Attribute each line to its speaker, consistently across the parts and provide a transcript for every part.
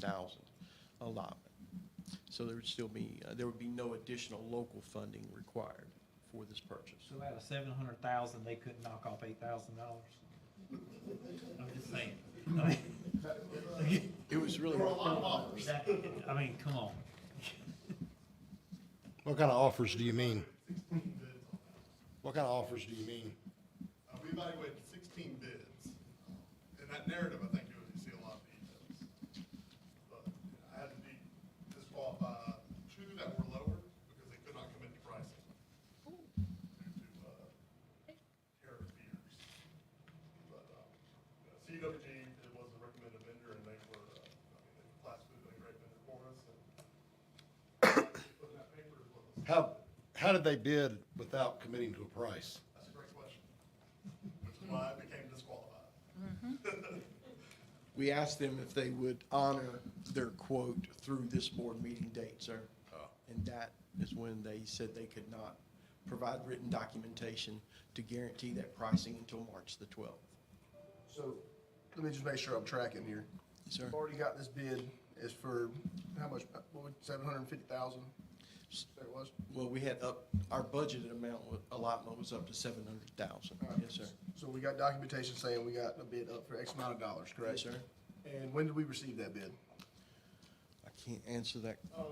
Speaker 1: thousand allotment. So there would still be, uh, there would be no additional local funding required for this purchase.
Speaker 2: So out of seven hundred thousand, they couldn't knock off eight thousand dollars? I'm just saying. I mean,
Speaker 1: It was really.
Speaker 2: that- I mean, come on.
Speaker 3: What kind of offers do you mean? What kind of offers do you mean?
Speaker 4: Uh, we evaluated sixteen bids. In that narrative, I think you would see a lot of details. But I had to be disqualified two that were lower because they could not come into pricing due to, uh, tariff fears. But, um, you know, CWG, it was a recommended vendor and they were, uh, I mean, they classified a great vendor for us uh, and putting that paper as well.
Speaker 3: How, how did they bid without committing to a price?
Speaker 4: That's a great question, which is why I became disqualified.
Speaker 1: We asked them if they would honor their quote through this board meeting date, sir. And that is when they said they could not provide written documentation to guarantee that pricing until March the twelfth.
Speaker 5: So, let me just make sure I'm tracking here.
Speaker 1: Yes, sir.
Speaker 5: We've Already got this bid is for, how much, uh, what, seven hundred and fifty thousand? That was?
Speaker 1: Well, we had up, our budgeted amount, wa- allotment was up to seven hundred thousand. Yes, sir.
Speaker 5: So we got documentation saying we got a bid up for X amount of dollars,
Speaker 1: Yes,
Speaker 5: correct?
Speaker 1: sir.
Speaker 5: And when did we receive that bid?
Speaker 1: I can't answer that.
Speaker 4: Um,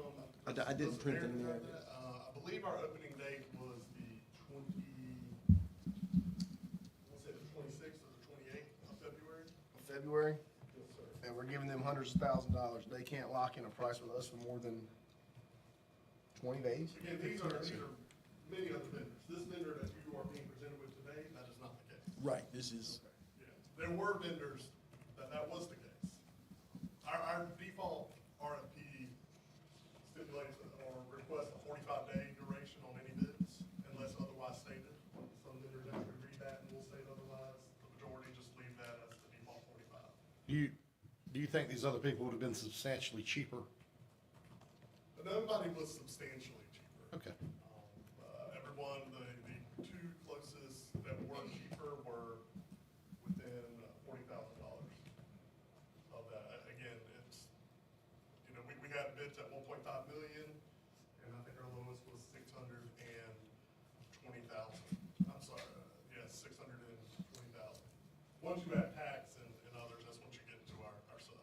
Speaker 1: I d- I didn't print it in the
Speaker 4: Mary,
Speaker 1: narrative.
Speaker 4: Uh, I believe our opening date was the twenty, let's say the twenty-sixth or the twenty-eighth of February.
Speaker 5: February?
Speaker 4: Yes, sir.
Speaker 5: And we're giving them hundreds of thousands of dollars. They can't lock in a price with us for more than twenty days?
Speaker 4: Again, these are, these are many other vendors. This vendor that you are being presented with today, that is not the case.
Speaker 1: Right, this is,
Speaker 4: Yeah, There were vendors that that was the case. Our, our default RFP stipulates or requests a forty-five day duration on any bids unless otherwise stated. Some vendors actually read that and will state otherwise. The majority just leave that as the default forty-five.
Speaker 3: Do you, do you think these other people would have been substantially cheaper?
Speaker 4: But nobody was substantially cheaper.
Speaker 3: Okay.
Speaker 4: Um, uh, Everyone, the, the two closest that were cheaper were within forty thousand dollars of that. Uh, Again, it's, you know, we, we had bids at one point five million, and I think our lowest was six hundred and twenty thousand. I'm sorry, uh, yeah, six hundred and twenty thousand. Once you add tax and, and others, that's once you get into our, our sub.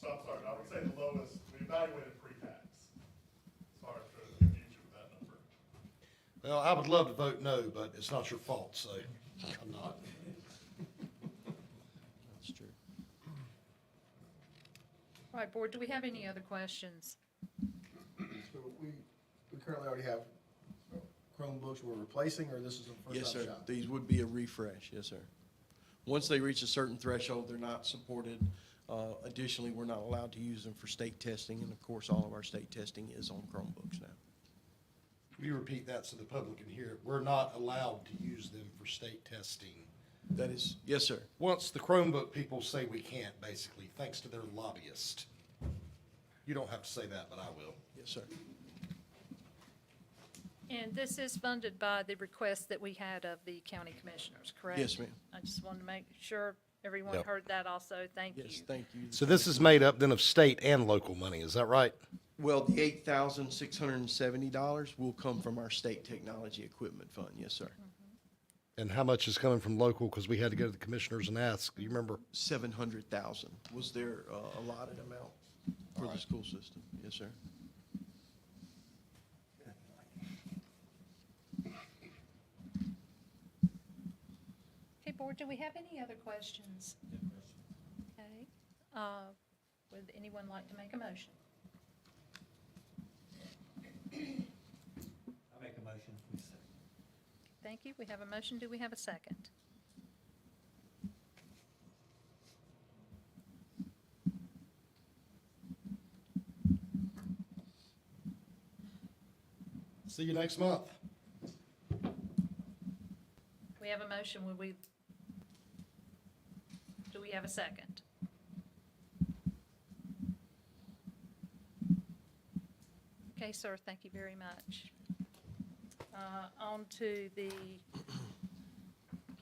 Speaker 4: So I'm sorry, I would say the lowest, we evaluated pre-tax. Sorry for the confusion with that number.
Speaker 3: Well, I would love to vote no, but it's not your fault, so I'm not.
Speaker 1: that's true.
Speaker 6: All right, Board, do we have any other questions?
Speaker 5: So we, we currently already have Chromebooks we're replacing, or this is a
Speaker 1: Yes,
Speaker 5: first time
Speaker 1: sir.
Speaker 5: shop?
Speaker 1: These would be a refresh, yes, sir. Once they reach a certain threshold, they're not supported. Uh, Additionally, we're not allowed to use them for state testing, and of course, all of our state testing is on Chromebooks now.
Speaker 3: We repeat that so the public can hear it. We're not allowed to use them for state testing.
Speaker 1: That is, yes, sir.
Speaker 3: Once the Chromebook people say we can't, basically, thanks to their lobbyist. You don't have to say that, but I will.
Speaker 1: Yes, sir.
Speaker 6: And this is funded by the request that we had of the county commissioners, correct?
Speaker 1: Yes, ma'am.
Speaker 6: I just wanted to make sure everyone
Speaker 3: Yep.
Speaker 6: heard that also. Thank you.
Speaker 1: Yes, thank you.
Speaker 3: So this is made up then of state and local money, is that right?
Speaker 1: Well, the eight thousand six hundred and seventy dollars will come from our state technology equipment fund, yes, sir.
Speaker 3: And how much is coming from local? Because we had to go to the commissioners and ask. You remember?
Speaker 1: Seven hundred thousand was their uh, allotted amount for the school system, yes, sir.
Speaker 6: Okay, Board, do we have any other questions? Okay. uh, Would anyone like to make a motion?
Speaker 2: I make a motion, we second.
Speaker 6: Thank you. We have a motion. Do we have a second?
Speaker 3: See you next month.
Speaker 6: We have a motion. Would we? Do we have a second? Okay, sir, thank you very much. Uh, On to the